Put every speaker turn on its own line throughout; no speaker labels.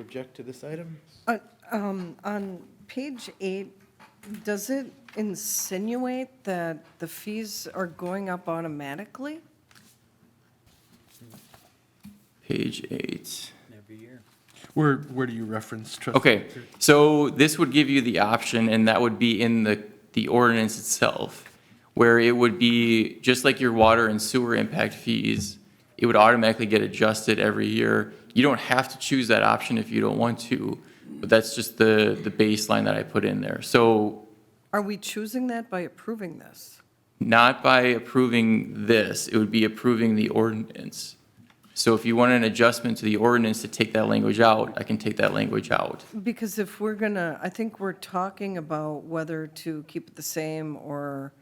Object to this item?
Uh, um, On page eight, does it insinuate that the fees are going up automatically?
Page eight.
Where, where do you reference, trustee?
Okay, so this would give you the option, and that would be in the, the ordinance itself, where it would be, just like your water and sewer impact fees, it would automatically get adjusted every year. You don't have to choose that option if you don't want to, but that's just the, the baseline that I put in there. So
Are we choosing that by approving this?
not by approving this, it would be approving the ordinance. So if you want an adjustment to the ordinance to take that language out, I can take that language out.
Because if we're gonna, I think we're talking about whether to keep it the same or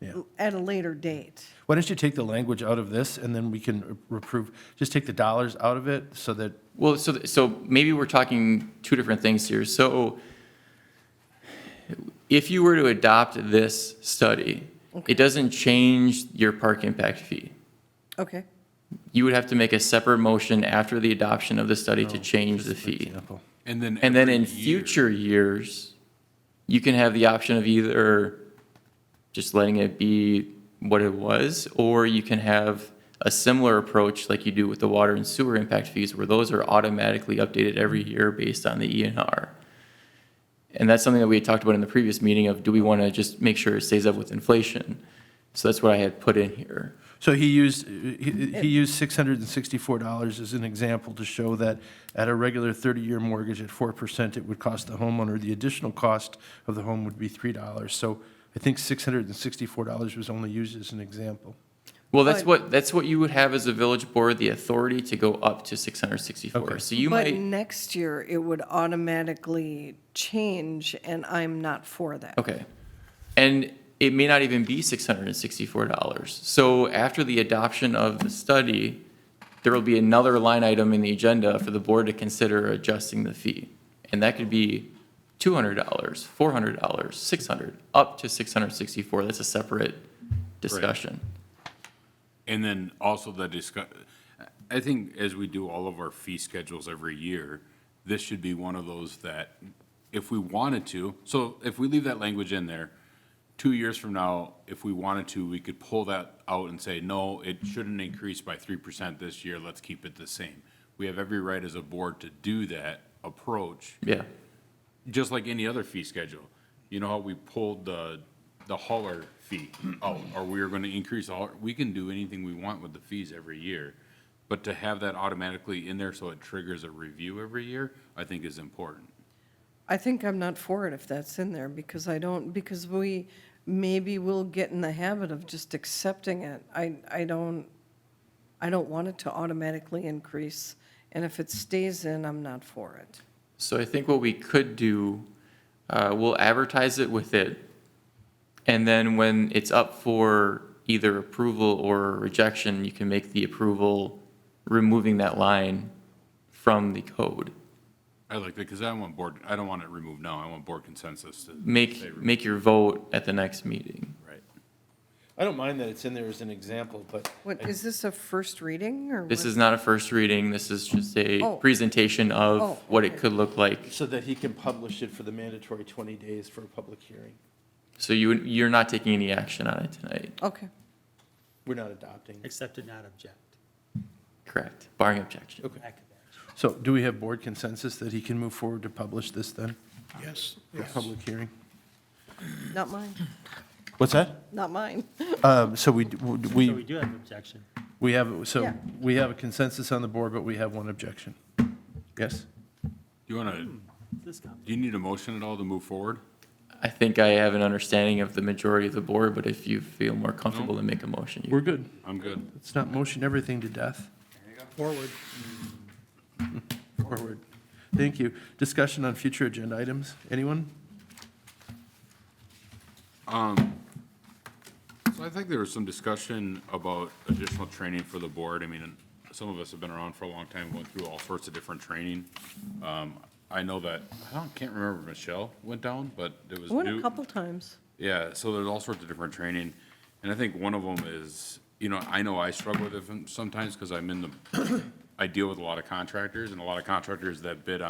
Yeah.
at a later date.
Why don't you take the language out of this, and then we can approve, just take the dollars out of it, so that,
Well, so, so maybe we're talking two different things here. So if you were to adopt this study, it doesn't change your park impact fee.
Okay,
You would have to make a separate motion after the adoption of the study to change the fee.
example.
And then
And then
every
in
year-
future years, you can have the option of either just letting it be what it was, or you can have a similar approach like you do with the water and sewer impact fees, where those are automatically updated every
Mm-hmm.
year based on the ENR. And that's something that we had talked about in the previous meeting of, do we want to just make sure it stays up with inflation? So that's what I had put in here.
So he used, he he used six hundred and sixty-four dollars as an example to show that at a regular thirty-year mortgage at four percent, it would cost the homeowner, the additional cost of the home would be three dollars. So I think six hundred and sixty-four dollars was only used as an example.
Well, that's
But-
what, that's what you would have as a village board, the authority to go up to six hundred sixty-four.
Okay.
So you might.
but next year it would automatically change and I'm not for that.
Okay. And it may not even be $664. So after the adoption of the study, there will be another line item in the agenda for the board to consider adjusting the fee. And that could be $200, $400, $600, up to $664. That's a separate discussion.
And then also the discuss, I think as we do all of our fee schedules every year, this should be one of those that if we wanted to, so if we leave that language in there, two years from now, if we wanted to, we could pull that out and say, no, it shouldn't increase by three percent this year, let's keep it the same. We have every right as a board to do that approach,
Yeah.
just like any other fee schedule. You know how we pulled the, the hauler fee out, or we were gonna increase all, we can do anything we want with the fees every year. But to have that automatically in there so it triggers a review every year, I think is important.
I think I'm not for it if that's in there, because I don't, because we, maybe we'll get in the habit of just accepting it. I, I don't, I don't want it to automatically increase, and if it stays in, I'm not for it.
So I think what we could do, uh, we'll advertise it with it. And then when it's up for either approval or rejection, you can make the approval, removing that line from the code.
I like that, because I want board, I don't want it removed now, I want board consensus to. say
Make,
remove.
make your vote at the next meeting.
Right.
I don't mind that it's in there as an example, but
What, is this a first reading, or?
This
what?
is not a first reading, this is just
Oh.
a presentation
Oh,
of what it
okay.
could look like.
So that he can publish it for the mandatory 20 days for a public hearing.
So you, you're not taking any action on it tonight,
Okay,
We're not adopting.
Except to not object.
correct? Barring objection.
Okay.
Lack of action.
So do we have board consensus that he can move forward to publish this then? Yes. Public hearing?
not mine,
What's that?
not mine.
Um, So we, d-
So we
we,
do have objection.
we have, so
Yeah.
we have a consensus on the board, but we have one objection. Yes?
Do you wanna, do
This comes.
you need a motion at all to move forward?
I think I have an understanding of the majority of the board, but if you feel more comfortable to make a motion, you
We're good.
I'm good.
Let's not motion everything to death. Forward. Forward. Thank you. Discussion on future agenda items. Anyone?
So I think there was some discussion about additional training for the board. I mean, some of us have been around for a long time, went through all sorts of different training. Um, I know that, I don't, can't remember, if Michelle went down, but it was
I went a
new-
couple times.
yeah, so there's all sorts of different training, and I think one of them is, you know, I know I struggle with it from- sometimes because I'm in the I deal with a lot of contractors and a lot of contractors that bid on.